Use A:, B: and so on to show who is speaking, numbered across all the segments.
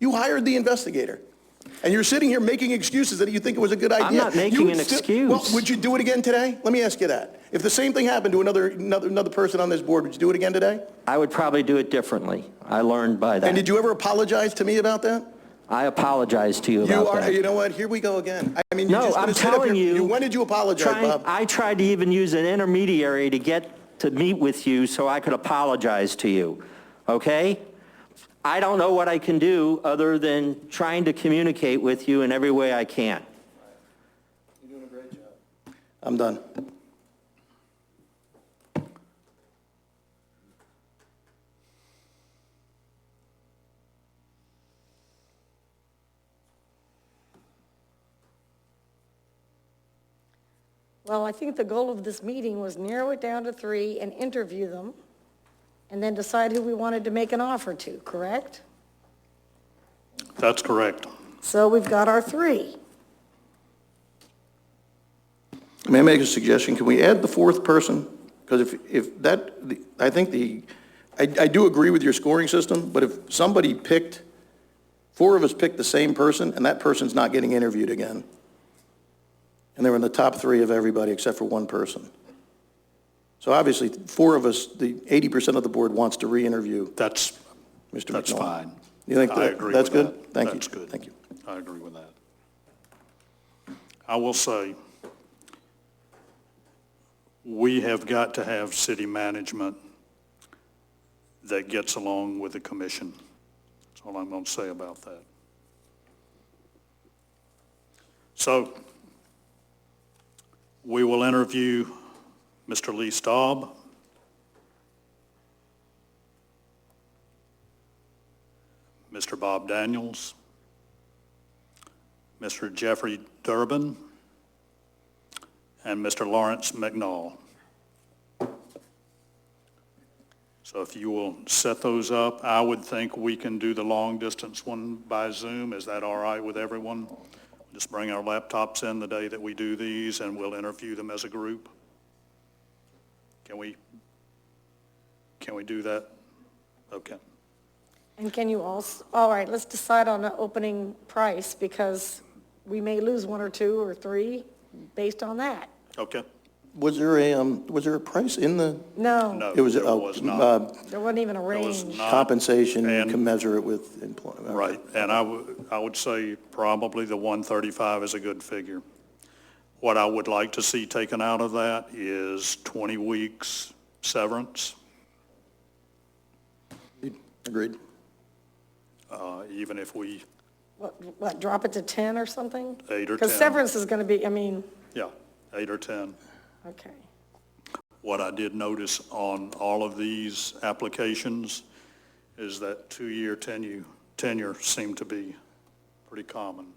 A: You hired the investigator. And you're sitting here making excuses that you think it was a good idea.
B: not
A: You
B: making
A: would
B: an
A: still- Well,
B: excuse.
A: would you do it again today? Let me ask you that. If the same thing happened to another, another, another person on this board, would you do it again today?
B: I would probably do it differently. I learned by
A: And did
B: that.
A: you ever apologize to me about that?
B: I apologize to you
A: You
B: about
A: are, you
B: that.
A: know what, here we go again. I mean, you're
B: No,
A: just
B: I'm
A: gonna sit up
B: telling
A: here-
B: you.
A: When did you apologize,
B: trying-
A: Bob?
B: I tried to even use an intermediary to get to meet with you so I could apologize to you, okay? I don't know what I can do other than trying to communicate with you in every way I can.
A: I'm done.
C: Well, I think the goal of this meeting was narrow it down to three and interview them, and then decide who we wanted to make an offer to, correct?
D: That's correct.
C: So we've got our three.
A: May I make a suggestion? Can we add the fourth person? Because if, if that, the- I think the, I, I do agree with your scoring system, but if somebody picked, four of us picked the same person, and that person's not getting interviewed again. And they were in the top three of everybody except for one person. So obviously, four of us, the 80% of the board wants to re-interview
D: That's,
A: Mr. McNaught.
D: that's fine.
A: You think
D: I
A: that-
D: agree
A: that's
D: with
A: good?
D: that.
A: Thank you.
D: That's good.
A: Thank you.
D: I agree with that. I will say, we have got to have city management that gets along with the commission. That's all I'm going to say about that. So we will interview Mr. Lee Staub. Mr. Bob Daniels, Mr. Jeffrey Durbin, and Mr. Lawrence McNall. So if you will set those up, I would think we can do the long-distance one by Zoom. Is that all right with everyone? Just bring our laptops in the day that we do these, and we'll interview them as a group. Can we, can we do that? Okay.
C: And can you also, all right, let's decide on the opening price, because we may lose one or two or three based on that.
D: Okay.
A: Was there a, um, was there a price in the?
C: No,
D: No,
A: It was,
D: there
A: uh,
D: was not.
A: uh,
C: there wasn't even a
D: was
C: range.
D: not.
A: compensation
D: Uh, And-
A: commensurate with employment.
D: Right, and I would, I would say probably the 135 is a good figure. What I would like to see taken out of that is 20 weeks severance,
A: Agreed.
D: uh, even if we,
C: What, what, drop it to 10 or something?
D: Eight or
C: Because
D: 10.
C: severance is going to be, I mean,
D: yeah, eight or 10.
C: okay.
D: What I did notice on all of these applications is that two-year tenure, tenure seemed to be pretty common.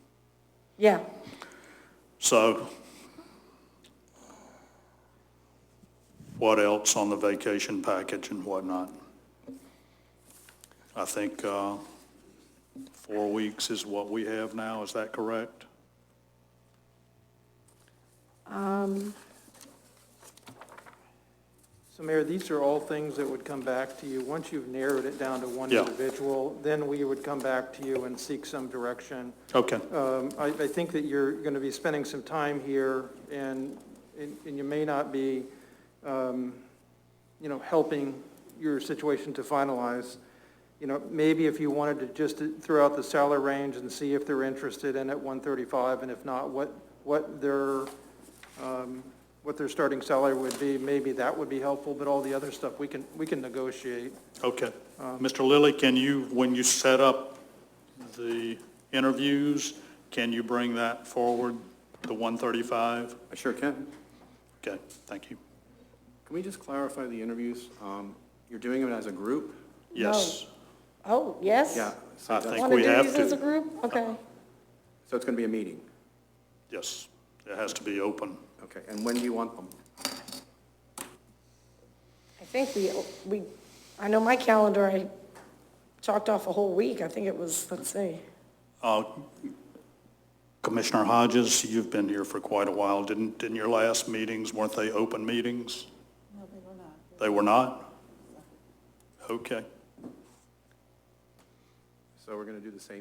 C: Yeah,
D: So what else on the vacation package and whatnot? I think uh, four weeks is what we have now, is that correct?
E: So Mayor, these are all things that would come back to you. Once you've narrowed it down to one
D: Yeah.
E: individual, then we would come back to you and seek some direction.
D: Okay,
E: Um, I, I think that you're going to be spending some time here, and, and and you may not be, um, you know, helping your situation to finalize. You know, maybe if you wanted to just throw out the salary range and see if they're interested in at 135, and if not, what, what their, um, what their starting salary would be, maybe that would be helpful, but all the other stuff, we can, we can negotiate.
D: okay. Mr. Lilly, can you, when you set up the interviews, can you bring that forward, the 135?
F: I sure can.
D: Okay, thank you.
F: Can we just clarify the interviews? Um, You're doing them as a group?
D: Yes,
C: oh, yes?
F: Yeah. so
D: I
F: that's-
D: think
C: Want to
D: we
C: do
D: have
C: these as
D: to.
C: a group? Okay.
F: So it's going to be a meeting?
D: yes, it has to be open.
F: Okay, and when do you want them?
C: I think we, we, I know my calendar, I chalked off a whole week. I think it was, let's see.
D: Uh, Commissioner Hodges, you've been here for quite a while. Didn't, didn't your last meetings, weren't they open meetings? No, they were not. They were not? Okay.
F: So we're going to do the same